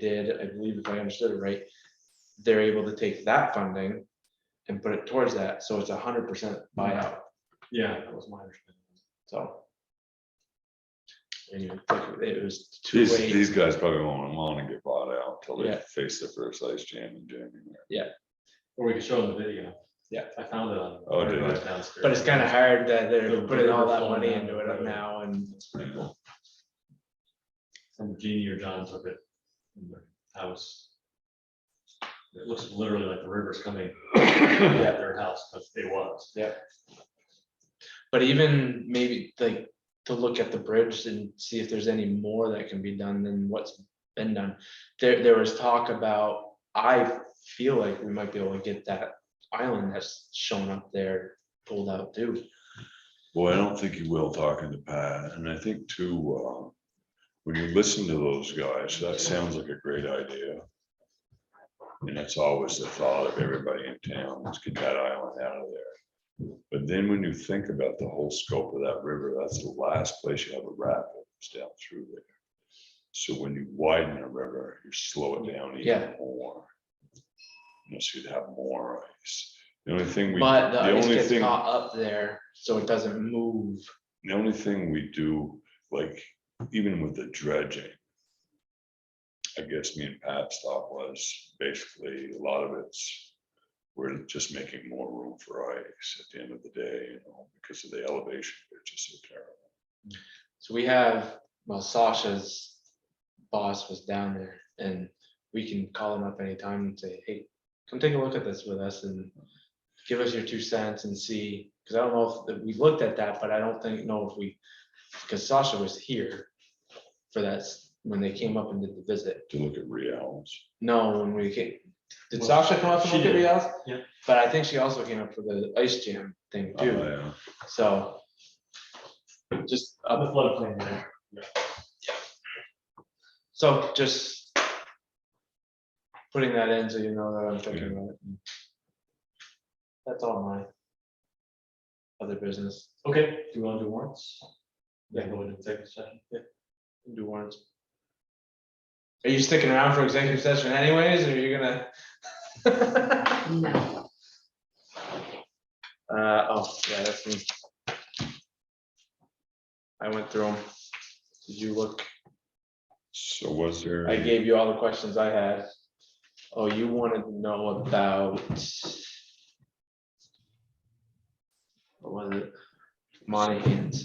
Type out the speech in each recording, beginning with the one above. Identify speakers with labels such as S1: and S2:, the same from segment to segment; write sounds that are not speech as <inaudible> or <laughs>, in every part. S1: did, I believe if I understood it right, they're able to take that funding and put it towards that, so it's a hundred percent buyout,
S2: Yeah, that was my understanding.
S1: so. Anyway, it was two
S3: These,
S1: ways,
S3: these guys probably won't want to get bought out until they
S1: Yeah.
S3: face the first ice jam in January.
S2: Or we could show them the video.
S1: Yeah.
S2: I found it on.
S3: Oh, did you?
S2: downstairs.
S1: but it's kind of hard that they're
S2: The
S1: putting all that
S2: river
S1: money
S2: flowing
S1: into
S2: down the
S1: it
S2: road.
S1: now and.
S2: It's pretty cool. Some genie or John took it in their house. It looks literally like the river's
S1: <coughs>
S2: coming at their house, but it was.
S1: But even maybe like to look at the bridge and see if there's any more that can be done than what's been done. There, there was talk about, I feel like we might be able to get that island that's shown up there pulled out too.
S3: Well, I don't think you will talking to Pat, and I think too, uh, when you listen to those guys, that sounds like a great idea. And that's always the thought of everybody in town, let's get that island out of there. But then when you think about the whole scope of that river, that's the last place you have a rapids down through there. So when you widen a river, you slow it down even
S1: Yeah.
S3: more. Unless you'd have more ice. The only thing we.
S1: But the
S3: the
S1: ice
S3: only
S1: gets
S3: thing.
S1: caught up there, so it doesn't move.
S3: The only thing we do, like, even with the dredging. I guess me and Pat's thought was basically a lot of it's. We're just making more room for ice at the end of the day, you know, because of the elevation, which is so terrible.
S1: So we have, well, Sasha's boss was down there and we can call him up anytime and say, hey, come take a look at this with us and give us your two cents and see, because I don't know if, that we looked at that, but I don't think, know if we, because Sasha was here for that, s- when they came up and did the visit.
S3: To look at reals,
S1: No, when we came, did
S2: Well,
S1: Sasha come up and
S2: she
S1: look at
S2: did,
S1: Rial's?
S2: yeah.
S1: But I think she also came up for the ice jam thing
S2: Uh-huh.
S1: too,
S3: yeah,
S1: so. Just up
S2: On the floodplain there.
S1: So just putting that in so you know that I'm thinking about it. That's all my other business. Oh,
S2: Okay, do you want to do warrants? Yeah, go into executive session.
S1: Do warrants. Are you sticking around for executive session anyways, or are you gonna?
S4: No.
S1: <laughs> Uh, oh, yeah, that's me. I went through them. Did you look?
S3: so was there?
S1: I gave you all the questions I had. Oh, you wanted to know about. What was it? Monahans.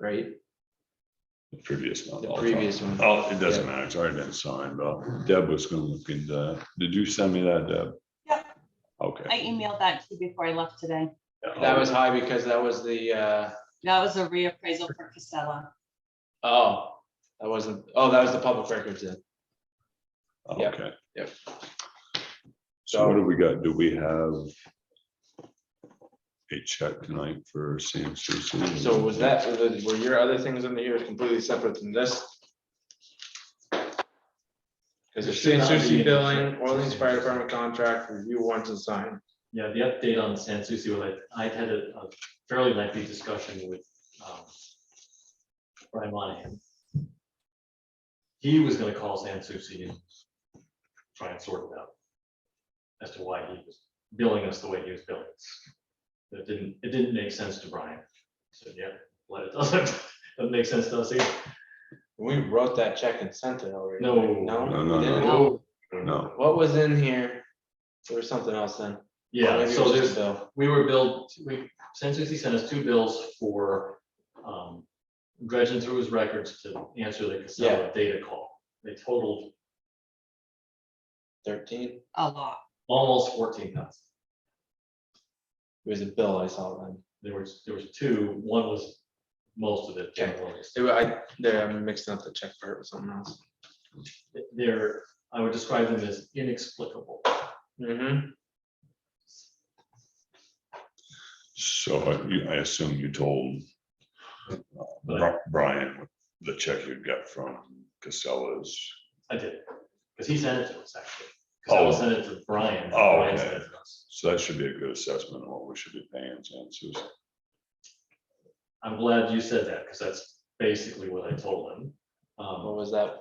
S1: Right,
S3: the Previous one.
S1: the
S3: I'll talk-
S1: previous one.
S3: Oh, it doesn't matter, it's already been signed, but Deb was gonna look into that, did you send me that, Deb?
S4: Yeah.
S3: Okay.
S4: I emailed that to you before I left today.
S1: That was high because that was the, uh,
S4: That was a reappraisal for Casella.
S1: oh, that wasn't, oh, that was the public records then. yeah,
S3: Oh, Okay.
S1: yep.
S3: So what do we got? Do we have a check tonight for Sam Susan?
S1: So was that, were your other things under here completely separate from this? Because there's St. Susie billing, Orleans Fire Department contract, review warrants and sign.
S2: Yeah, the update on San Souci, well, I, I had a a fairly lengthy discussion with, um, Brian Monahan. He was gonna call San Souci and try and sort it out as to why he was billing us the way he was billing us. It didn't, it didn't make sense to Brian. So, yeah, well, it doesn't, <laughs> doesn't make sense to us either.
S1: We wrote that check and sent it already.
S2: No.
S3: No,
S1: No?
S3: no,
S1: we didn't?
S2: no.
S3: No.
S1: What was in here? There was something else then.
S2: Yeah,
S1: Maybe it
S2: so
S1: was
S2: there's,
S1: just Bill.
S2: we were billed, we, San Souci sent us two bills for um, dredging through his records to answer the Casella data call. They totaled
S1: Thirteen,
S4: A lot.
S2: almost fourteen thousand.
S1: it was a bill I saw then.
S2: There was, there was two, one was most of it.
S1: Yeah. They were- I, there, I'm mixing up the check part with something else.
S2: They're, I would describe them as inexplicable.
S1: Mm-hmm.
S3: So I- you- I assume you told uh, Bri- Brian what the check you got from Casella's.
S2: I did, because he sent it to us actually. Casella
S3: Oh.
S2: sent it to Brian. and
S3: Oh,
S2: Brian
S3: okay.
S2: sent it to us.
S3: So that should be a good assessment of what we should be paying Sam Susan.
S2: I'm glad you said that, because that's basically what I told him. Um,
S1: What was that